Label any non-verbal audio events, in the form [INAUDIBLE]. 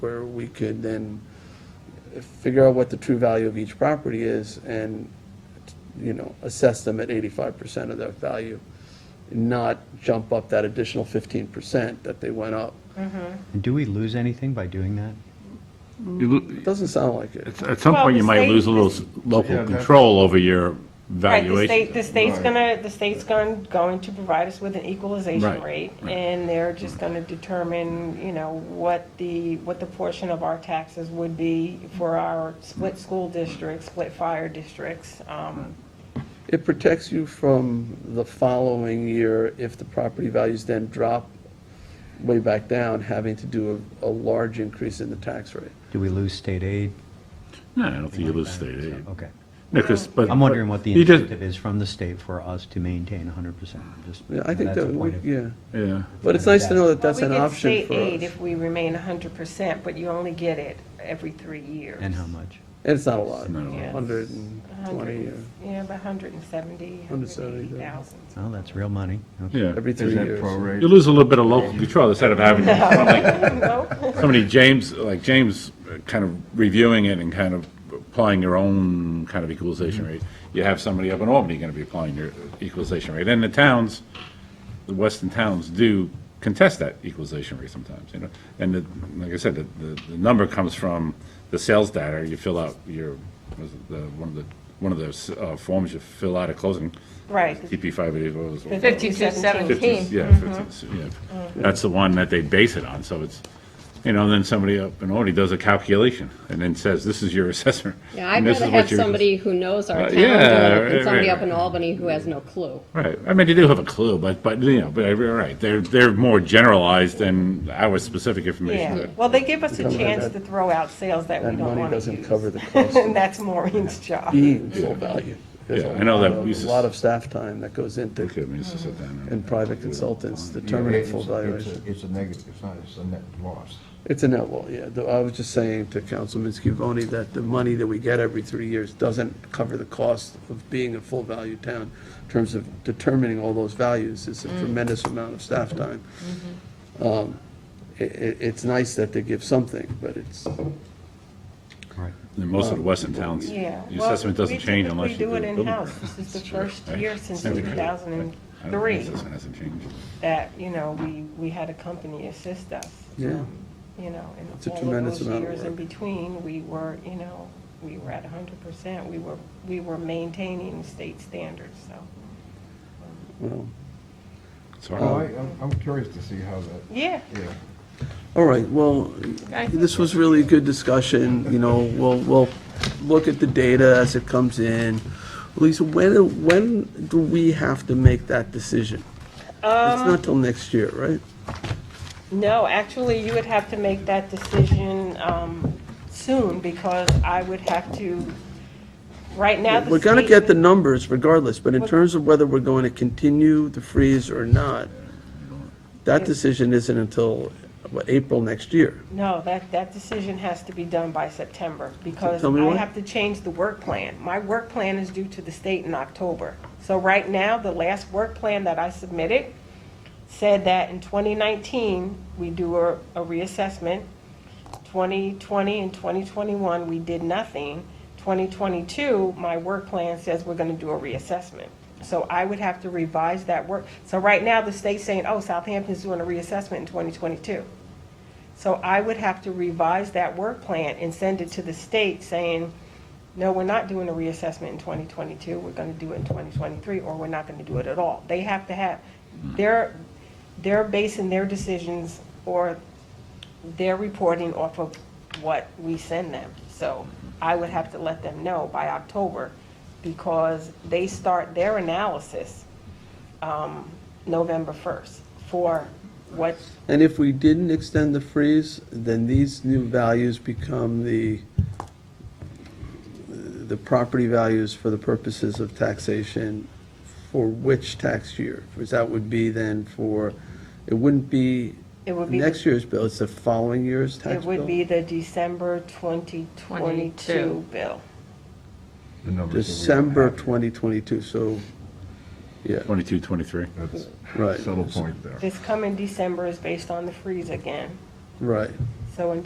we could then figure out what the true value of each property is and, you know, assess them at eighty-five percent of their value, not jump up that additional fifteen percent that they went up. And do we lose anything by doing that? You lo- It Doesn't sound like it. At at some Well, point, you the might state- lose a little s- Yeah, local that's- control over your Right, the state, valuation. the state's Right. gonna, the state's going, going to provide us with an equalization Right, rate, right. and they're just gonna determine, you know, what the, what the portion of our taxes would be for our split school districts, split fire districts, um, It protects you from the following year, if the property values then drop way back down, having to do a, a large increase in the tax rate. Do we lose state aid? No, I don't think you lose Anything state like that? aid. So, Okay. No, 'cause- but- I'm wondering what the you just- incentive is from the state for us to maintain 100%. Just- Yeah, I think that's that, the we- point of- yeah, Yeah, but it's nice to know that that's Well, an option for We get state us. aid if we remain hundred percent, but you only get it every three years. And how much? And it's not a lot, Not a lot. Yeah. hundred and A hundred twenty, and- Yeah, about hundred and seventy, hundred and 170, eighty yeah. thousand. Oh, that's real money. Okay. yeah. every three Is that years. You prorated? lose a little bit of local control instead of [LAUGHS] having somebody- somebody, James, like James, uh, kind of reviewing it and kind of applying your own kind of equalization rate. You have somebody up in Albany going to be applying your equalization rate. And the towns, the western towns do contest that equalization rate sometimes, you know? And the, like I said, the, the, the number comes from the sales data, you fill out your, was it the, one of the, one of those, uh, forms you fill out at closing. Right. TP five oh eighty, what was it? 5217. 50s, Yeah, Mm-hmm. 50s, yeah. That's the one that they base it on, so it's, you know, then somebody up in Albany does a calculation and then says, this is your [LAUGHS] assessor. Yeah, I'd and this rather is what have your- somebody who knows Uh, our yeah, town doing it right, than somebody right, up in right. Albany who has no clue. Right, I mean, they do have a clue, but, but, you know, but, uh, right, they're, they're more generalized than our specific information. Yeah, that- well, they give us a Something like chance that. to throw out sales that we That don't money want to doesn't use. cover the [LAUGHS] cost And of E- that's Maureen's job. being full value. There's Yeah, a I know that lot of- uses- A lot of staff time that goes into, Okay, I mean, it's just sit down and and- private consultants Yeah, determining it's- full it's a- valuation. It's a negative, it's not, it's a net loss. It's a net loss, yeah. Though I was just saying to Councilman Scavone that the money that we get every three years doesn't cover the cost of being a full value town in terms of determining all those values. It's a tremendous amount of staff time. Um, i- i- it's nice that they give something, but it's, All right. And most of the western towns, Yeah. the assessment doesn't change unless you do. We a typically do it building in-house. permit. This is the That's right, first right. year since Every year. I don't think 2003 the assessment hasn't changed. that, you know, we, we had a company assist us. Um, yeah. You know, It's a and all of tremendous those amount of years in work. between, we were, you know, we were at 100%. We were, we were maintaining state standards, so. Well, It's Well, Oh, I, hard. Um, I'm- I'm curious to see how that, Yeah. yeah. All right, well, this was really a good discussion, you know, we'll, we'll look at the data as it comes in. Lisa, when, when do we have to make that decision? It's Um, not till next year, right? No, actually, you would have to make that decision um, soon, because I would have to, right now, the We're gonna get the state- numbers regardless, but in terms of whether we're going to continue the freeze or not, that decision isn't until, what, April next year? No, that, that decision has to be done by September, because Tell me I why. have to change the work plan. My work plan is due to the state in October. So right now, the last work plan that I submitted said that in 2019, we do a a reassessment, 2020 and 2021, we did nothing. 2022, my work plan says we're going to do a reassessment. So I would have to revise that work. So right now, the state's saying, oh, Southampton's doing a reassessment in 2022. So I would have to revise that work plan and send it to the state saying, no, we're not doing a reassessment in 2022, we're going to do it in 2023, or we're not going to do it at all. They have to have, they're, they're basing their decisions or their reporting off of what we send them. So I would have to let them know by October because they start their analysis um, November 1st for what And if we didn't extend the freeze, then these new values become the, the property values for the purposes of taxation for which tax year? Because that would be then for, it wouldn't be it would be. the next year's bill, it's the following year's tax It bill? would be the December 2022 22. bill. the numbers that we don't December have. 2022, so, yeah, Twenty-two, twenty-three. That's right, a subtle point there. This coming December is based on the freeze again. right. So in